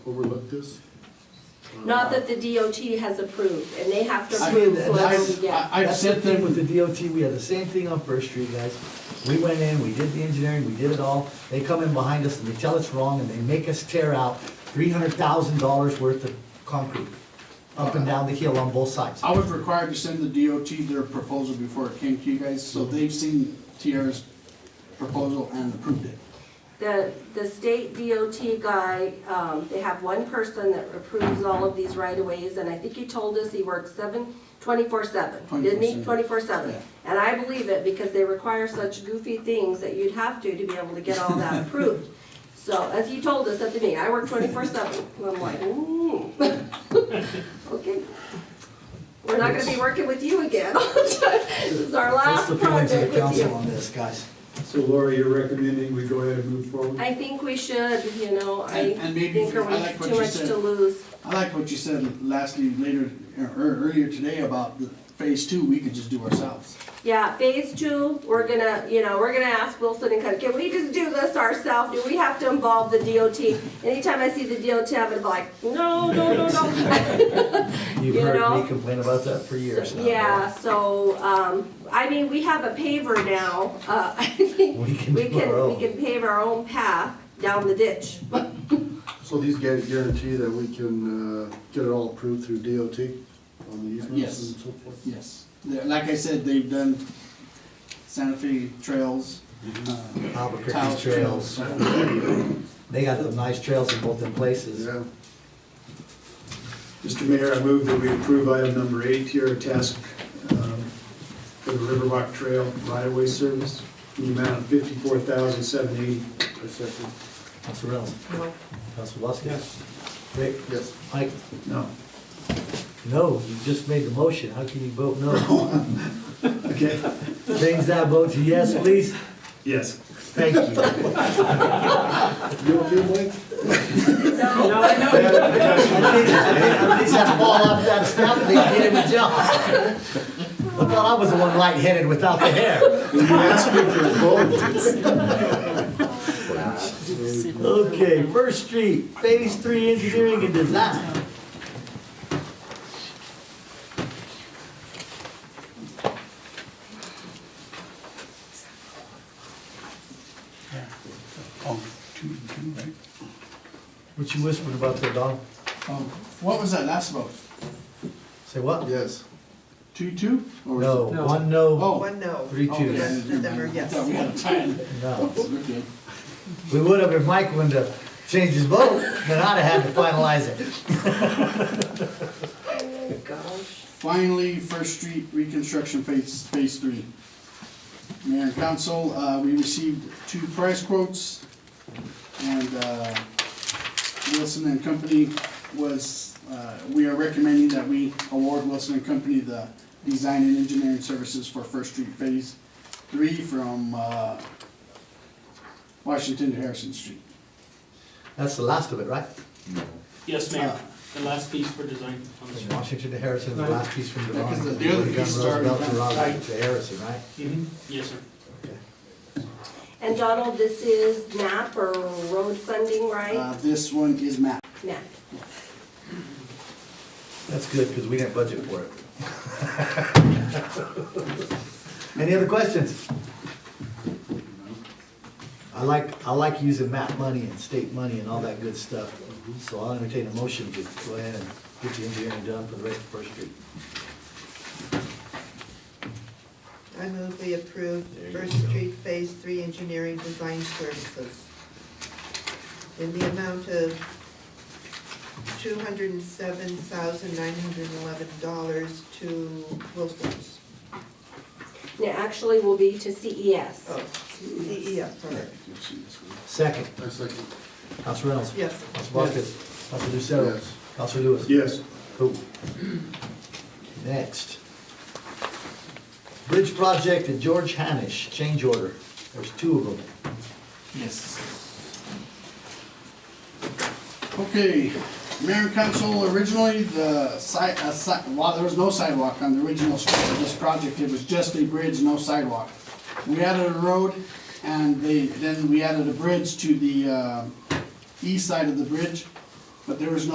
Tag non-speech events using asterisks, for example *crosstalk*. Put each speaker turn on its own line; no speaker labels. overlook this?
Not that the DOT has approved, and they have to
I-
approve
I-
whoever we
I-
get.
I've
That's
sent
the thing
them-
With the DOT, we had the same thing on First Street, guys. We went in, we did the engineering, we did it all. They come in behind us and they tell us wrong and they make us tear out three hundred thousand dollars worth of concrete up and down the hill on both sides.
I was required to send the DOT their proposal before it came to you guys, so they've seen Tierra's proposal and approved it.
The, the state DOT guy, um, they have one person that approves all of these right-of-ways, and I think you told us he works seven, twenty-four seven, didn't he?
24/7.
Twenty-four seven.
Yeah.
And I believe it because they require such goofy things that you'd have to to be able to get all
*laughs*
that approved. So, as you told us at the meeting, I work twenty-four seven, and I'm like, ooh. *laughs* Okay. We're not gonna be working with you again. *laughs* This is our
What's
last
the feelings of
project
the
with
council
you.
on this, guys?
So Laura, you're recommending we go ahead and move forward?
I think we should, you know, I
And- and maybe
think
I like
we're
what
too
you
much
said.
to lose.
I like what you said lastly, later, or earlier today about the phase two, we could just do ourselves.
Yeah, phase two, we're gonna, you know, we're gonna ask Wilson and County, can we just do this ourselves? Do we have to involve the DOT? Anytime I see the DOT, I'm gonna be like, no, no,
*laughs*
no, no.
You've
You
heard
know?
me complain about that for years now.
Yeah, so, um, I mean, we have a paver now, uh, *laughs* I think
We can
we
do our
can, we
own.
can pave our own path down the ditch.
So these guys guarantee that we can uh, get it all approved through DOT on the
Yes.
easements and so forth?
Yes. They're- Like I said, they've done Santa Fe trails.
Mm-hmm.
uh,
Albuquerque
tile
trails, they got the nice trails in both them places.
Yeah,
Mr. Mayor, I move that we approve item number eight here, a task um, for the Riverwalk Trail right-of-way service in the amount of fifty-four thousand seven eighty.
I second.
Council Reynolds,
No.
Council Voskis. Rick,
Yes.
Mike,
No.
no, you just made the motion, how can you vote no?
Okay,
Change that vote to yes, please.
yes.
Thank you.
*laughs* You okay, Mike?
At least that fall off that stump, they did him a job. I thought I was the one lightheaded without the hair.
When you asked me for a vote,
Okay, First Street, Phase Three Engineering and Design.
Oh, two and two, right?
What you whispered about there, Don?
Oh, What was that last vote?
Say what?
yes.
Two, two? Or was it-
No, one no,
Oh.
One no.
three
Oh,
twos.
yeah, never mind.
Number, yes.
I thought we had a tie.
No.
We're good.
We would have if Mike would have changed his vote, then I'd have had to finalize it.
Finally, First Street reconstruction phase, phase three. Mayor and council, uh, we received two price quotes, and, uh, Wilson and Company was, uh, we are recommending that we award Wilson and Company the design and engineering services for First Street Phase Three from, uh, Washington to Harrison Street.
That's the last of it, right?
Yes, Mayor, the last piece for design on the
From
street.
Washington to Harrison, the last piece from
Yeah, 'cause
Devon.
the- the other
We've done
piece is already
Roosevelt to
done,
Raleigh
right?
To Harrison, right?
Mm-hmm. Yes, sir.
And Donald, this is MAP or road funding,
Uh,
right?
this one is MAP.
MAP.
That's good, because we didn't budget for it. *laughs* Any other questions? I like, I like using MAP money and state money and all that good stuff, so I'll entertain a motion to go ahead and get the engineering done for the rest of First Street.
I move we approve First Street Phase Three Engineering Design Services in the amount of two hundred and seven thousand nine hundred and eleven dollars to Wilson's.
It actually will be to E CES.
Oh, CES, sorry.
Second,
I second.
Council Reynolds.
Yes.
Council Vasquez. Council Lucero.
Yes.
Council Lewis.
Yes.
Cool. Next. Bridge project at George Hanish, change order. There's two of them.
Yes. Okay, Mayor and Council, originally the site, uh, si- well, there was no sidewalk on the original scope of this project, it was just a bridge, no sidewalk. We added a road and they, then we added a bridge to the, uh, east side of the bridge. But there was no